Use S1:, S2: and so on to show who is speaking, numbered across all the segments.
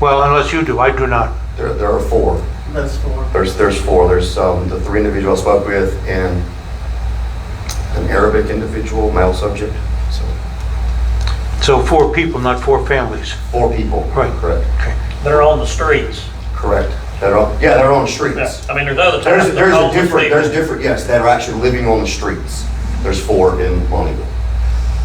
S1: Well, unless you do, I do not.
S2: There, there are four.
S3: That's four.
S2: There's, there's four. There's, um, the three individuals I spoke with and an Arabic individual, male subject. So
S1: So four people, not four families.
S2: four people.
S1: Right.
S2: Correct.
S4: that are on the streets.
S2: Correct. They're on, yeah, they're on the streets.
S4: I mean, there's other
S2: There's,
S4: towns that
S2: there's
S4: are
S2: a
S4: on the
S2: different, there's
S4: streets.
S2: different, yes, that are actually living on the streets. There's four in Montego.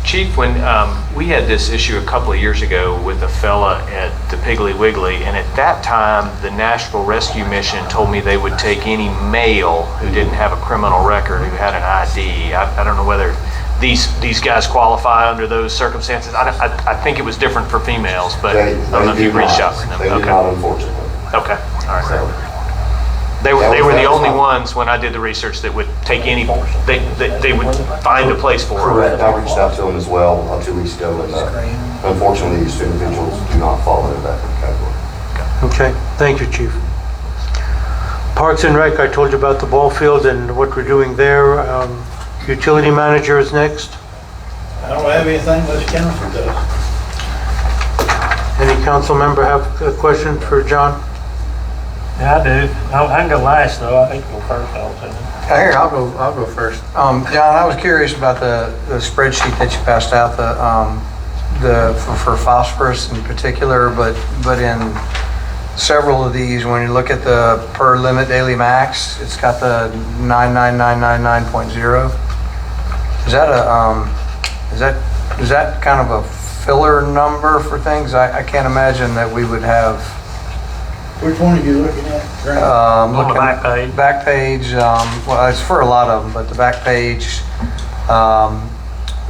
S5: Chief, when um, we had this issue a couple of years ago with a fella at the Piggly Wiggly, and at that time, the Nashville Rescue Mission told me they would take any male who didn't have a criminal record, who had an ID. I, I don't know whether these these guys qualify under those circumstances. I, don't- I, I think it was different for females, but
S2: They,
S5: I don't know if
S2: they
S5: you
S2: do
S5: reached out
S2: not.
S5: to them.
S2: They do
S5: okay.
S2: not unfortunately.
S5: Okay. All right.
S2: So,
S5: They were,
S2: That
S5: they
S2: was-
S5: were the
S2: that was
S5: only
S2: my-
S5: ones when I did the research that would take any, they, they, they would find a place for them.
S2: Correct. I reached out to them as well uh, two weeks ago and uh, unfortunately, these two individuals do not fall into that category.
S1: Okay, thank you, Chief. Parks and Rec, I told you about the ball field and what we're doing there. Um, Utility manager is next.
S3: I don't have anything unless council does.
S1: Any council member have a question for John?
S4: Yeah, I do. I I can go last, though. I think we'll first, I'll tell you.
S6: Here, I'll go, I'll go first. Um, John, I was curious about the, the spreadsheet that you passed out, the, um, the, for for phosphorus in particular, but, but in several of these, when you look at the per limit daily max, it's got the 99999.0. Is that a, um, is that, is that kind of a filler number for things? I, I can't imagine that we would have,
S3: Which one are you looking at? Grant?
S6: um,
S4: On the
S6: looking
S4: back page.
S6: back page, um, well, it's for a lot of them, but the back page, um,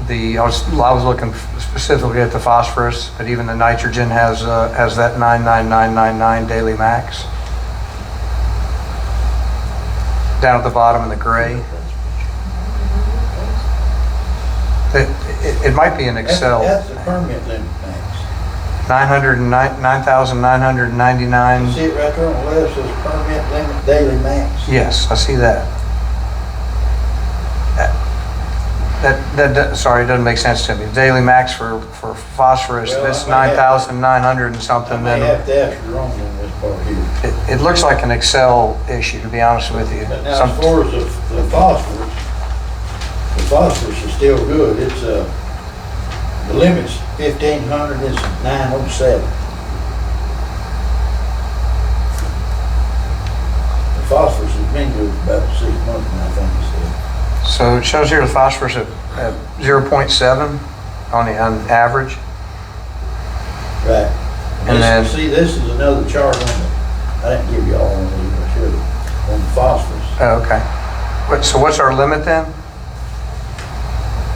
S6: the, I was, I was looking specifically at the phosphorus, but even the nitrogen has, uh, has that 99999 daily max. Down at the bottom in the gray. It, it- it might be in
S3: That's-
S6: Excel.
S3: That's the permit limit max.
S6: 909
S3: You
S6: 9,999,
S3: see it right there on the left, says permit limit daily max.
S6: yes, I see that. That, that, that- sorry, it doesn't make sense to me. Daily max for, for phosphorus,
S3: Well,
S6: that's
S3: I might have-
S6: 9,900 and
S3: I
S6: something,
S3: may
S6: then
S3: have to ask you wrong on this part here.
S6: it, it looks like an Excel issue, to be honest with you.
S3: But now, as
S6: Some-
S3: far as the the phosphorus, the phosphorus is still good. It's, uh, the limit's fifteen hundred, it's nine oh seven. The phosphorus has been good for about six months now, I think it's said.
S6: So it shows here the phosphorus at, at 0.7 on the, on average.
S3: Right.
S6: And then-
S3: This, see, this is another chart on the, I didn't give you all one of these, I should have, on the phosphorus,
S6: Oh, Okay. What- So what's our limit then?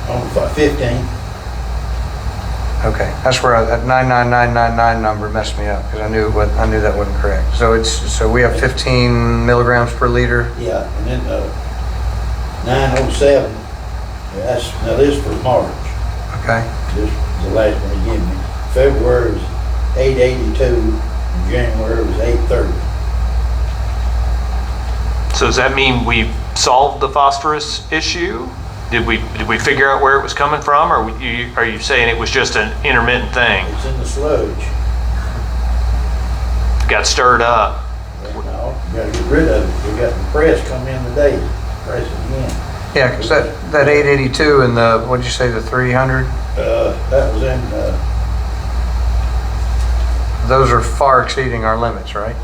S3: on the pho- fifteen.
S6: Okay, that's where I- that 99999 number messed me up, because I knew what, I knew that wasn't correct. So it's, so we have 15 milligrams per liter?
S3: Yeah, and then, uh, nine oh seven, that's, now this for March,
S6: Okay,
S3: this, is the last one he gave me. February was eight eighty-two, and January was eight thirty.
S5: So does that mean we solved the phosphorus issue? Did we, did we figure out where it was coming from, or you, are you saying it was just an intermittent thing?
S3: It's in the sludge.
S5: Got stirred up?
S3: And now, you gotta get rid of it, we got the press come in today, press it again.
S6: yeah, because that, that 882 and the, what'd you say, the 300?
S3: Uh, that was in, uh,
S6: Those are far exceeding our limits, right?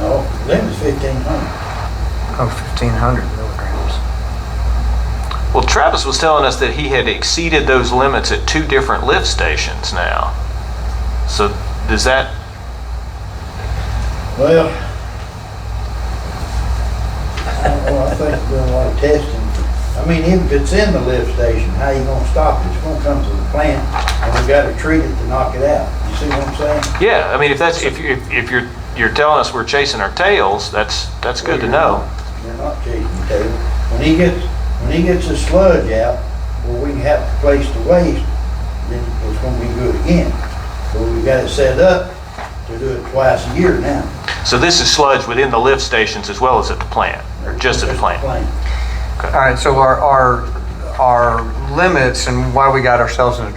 S3: no, that was fifteen hundred.
S6: Oh, 1,500 milligrams.
S5: Well, Travis was telling us that he had exceeded those limits at two different lift stations now. So does that,
S3: Well, I don't know, I think we're doing a lot of testing. I mean, if it's in the lift station, how you gonna stop it? It's gonna come to the plant, and we gotta treat it to knock it out. You see what I'm saying?
S5: yeah, I mean, if that's, if, you- if if you're, you're telling us we're chasing our tails, that's, that's good to know.
S3: You're not chasing the tail. When he gets, when he gets the sludge out, where we can have a place to waste, then it's gonna be good again. But we got it set up to do it twice a year now.
S5: So this is sludge within the lift stations as well as at the plant, or just at the plant?
S6: All right, so our, our, our limits and why we got ourselves in a